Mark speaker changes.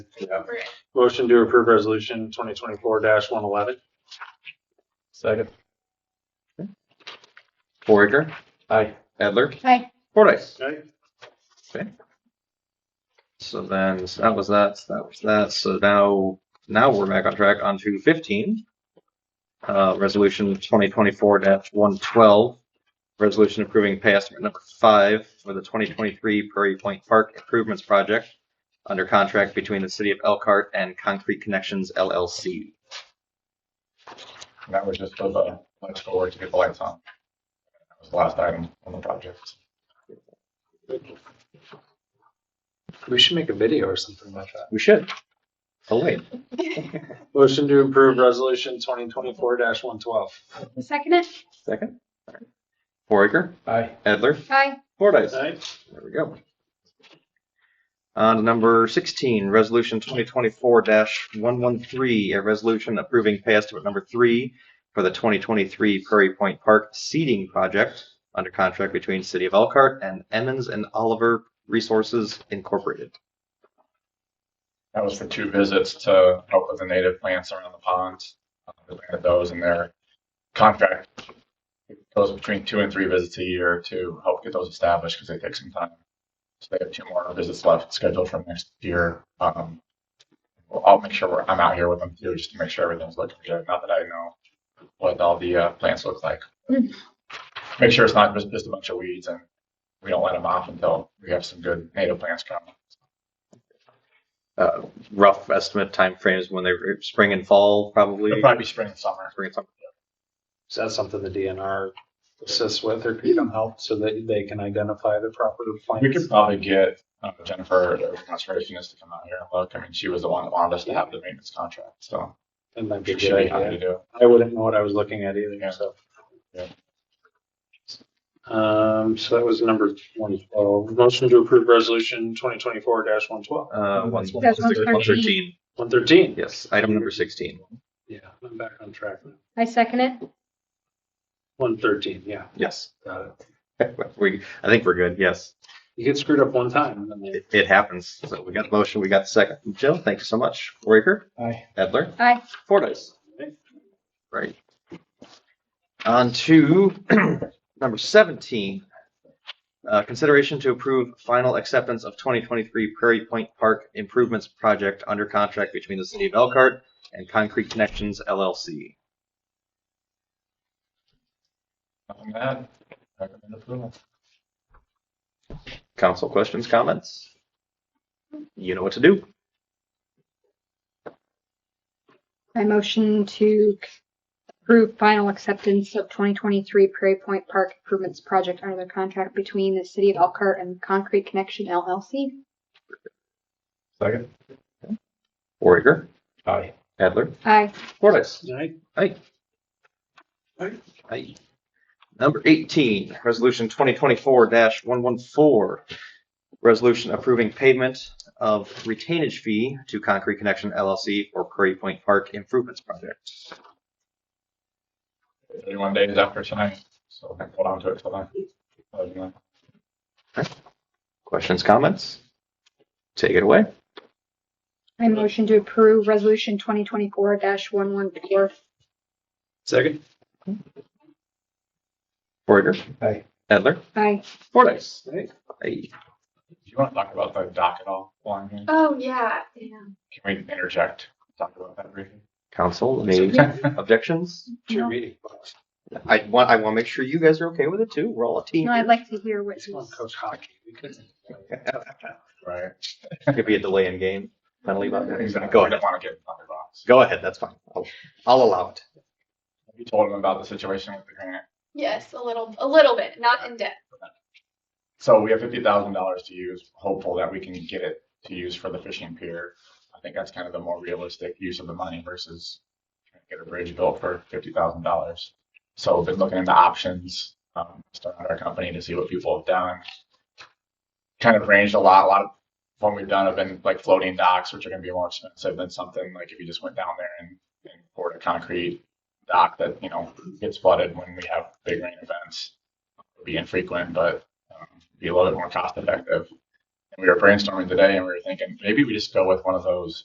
Speaker 1: Yeah.
Speaker 2: Right.
Speaker 1: Motion to approve resolution twenty twenty-four one eleven.
Speaker 3: Second.
Speaker 4: Forager,
Speaker 3: Aye.
Speaker 4: Edler,
Speaker 2: Hi.
Speaker 4: Fordice.
Speaker 1: Okay.
Speaker 4: So then, so that was that, so that was that, so now, now we're back on track onto fifteen. Uh, resolution twenty twenty-four one twelve, resolution approving pay estimate number five for the twenty twenty-three Prairie Point Park Improvements Project under contract between the city of Elkhart and Concrete Connections LLC.
Speaker 5: That was just for the electrical work to get the lights on. That was the last item on the project.
Speaker 3: We should make a video or something like that.
Speaker 4: We should. Oh, wait.
Speaker 1: Motion to approve resolution twenty twenty-four one twelve.
Speaker 2: Second it.
Speaker 4: Second. Foraker,
Speaker 3: Aye.
Speaker 4: Edler,
Speaker 2: Hi.
Speaker 4: Fordice.
Speaker 1: Okay.
Speaker 4: There we go. On to number sixteen, resolution twenty twenty-four one one three, a resolution approving pay estimate number three for the twenty twenty-three Prairie Point Park seeding project under contract between City of Elkhart and Emmons and Oliver Resources Incorporated.
Speaker 5: That was for two visits to help with the native plants around the pond. Uh, They planted those in their contract. Goes between two and three visits a year to help get those established because they take some time. So they have two more visits left scheduled for next year. Um, well, I'll make sure we're, I'm out here with them too, just to make sure everything's looking good. Not that I know what all the uh, plants look like. Make sure it's not just, just a bunch of weeds and we don't let them off until we have some good native plants coming.
Speaker 4: Uh, rough estimate timeframes when they, spring and fall, probably.
Speaker 5: It'll probably be spring and summer.
Speaker 4: Spring and summer.
Speaker 1: Is that something the DNR assists with or can help so that they can identify the proper
Speaker 5: We
Speaker 1: plants?
Speaker 5: could probably get uh, Jennifer, the conservationist, to come out here and look. I mean, she was the one that wanted us to have the maintenance contract, so
Speaker 1: That might be a
Speaker 5: she should be
Speaker 1: good
Speaker 5: happy to
Speaker 1: idea.
Speaker 5: do. it.
Speaker 1: I wouldn't know what I was looking at either,
Speaker 5: Yeah.
Speaker 1: so.
Speaker 5: Yeah.
Speaker 1: Um, so that was number one twelve. Motion to approve resolution twenty twenty-four one twelve.
Speaker 4: Uh, one,
Speaker 1: That's
Speaker 4: one
Speaker 2: 113.
Speaker 4: thirteen.
Speaker 1: One thirteen.
Speaker 4: Yes, item number sixteen.
Speaker 1: Yeah, I'm back on track now.
Speaker 2: I second it.
Speaker 1: One thirteen, yeah,
Speaker 4: Yes.
Speaker 1: got it.
Speaker 4: We, I think we're good, yes.
Speaker 1: You get screwed up one time and then they
Speaker 4: It, it happens. So we got the motion, we got the second. Jill, thank you so much. Raker,
Speaker 3: Aye.
Speaker 4: Edler,
Speaker 2: Hi.
Speaker 4: Fordice. Right. On to number seventeen. Uh, consideration to approve final acceptance of twenty twenty-three Prairie Point Park Improvements Project under contract between the city of Elkhart and Concrete Connections LLC.
Speaker 5: Nothing bad. Recommend approval.
Speaker 4: Council questions, comments? You know what to do.
Speaker 2: I motion to approve final acceptance of 2023 Prairie Point Park Improvements Project under the contract between the City of Elkhart and Concrete Connection LLC.
Speaker 3: Second.
Speaker 4: Raker,
Speaker 3: Aye.
Speaker 4: Edler,
Speaker 2: Aye.
Speaker 4: Fordice.
Speaker 1: Right.
Speaker 4: Aye. Number eighteen, resolution twenty twenty-four one one four. Resolution approving payment of retainage fee to Concrete Connection LLC for Prairie Point Park Improvements Project.
Speaker 5: Thirty-one days after tonight, so I can hold on to it till then. Other than that,
Speaker 4: Questions, comments? Take it away.
Speaker 2: I motion to approve Resolution 2024-114.
Speaker 1: Second.
Speaker 4: Borger.
Speaker 3: Aye.
Speaker 4: Edler.
Speaker 2: Aye.
Speaker 4: Fordice.
Speaker 1: Aye.
Speaker 4: Aye.
Speaker 5: Do you want to talk about the dock at all? while I'm here?
Speaker 2: Oh, yeah. yeah.
Speaker 5: Can we interject? Talk about that briefly.
Speaker 4: Council, any objections?
Speaker 1: It's your
Speaker 2: No.
Speaker 1: meeting.
Speaker 4: I want, I want to make sure you guys are okay with it too. We're all a team.
Speaker 2: No, I'd like to hear what
Speaker 1: He's going
Speaker 2: he's.
Speaker 1: coach hockey. We could.
Speaker 5: Right.
Speaker 4: Could be a delay in game penalty. but-
Speaker 5: Exactly.
Speaker 4: Go
Speaker 5: I
Speaker 4: ahead.
Speaker 5: don't want to get in the box.
Speaker 4: Go ahead. That's fine. I'll, I'll allow it.
Speaker 5: You told him about the situation with the grant.
Speaker 6: Yes, a little, a little bit, not in depth.
Speaker 5: So we have fifty thousand dollars to use, hopeful that we can get it to use for the fishing pier. I think that's kind of the more realistic use of the money versus trying to get a bridge built for fifty thousand dollars. So we've been looking into options, um, starting our company to see what people have done. Kind of ranged a lot, a lot of what we've done have been like floating docks, which are gonna be more expensive than something like if you just went down there and, and poured a concrete dock that, you know, gets flooded when we have big rain events. It'd Be infrequent, but um, be a little bit more cost effective. And we were brainstorming today and we were thinking maybe we just go with one of those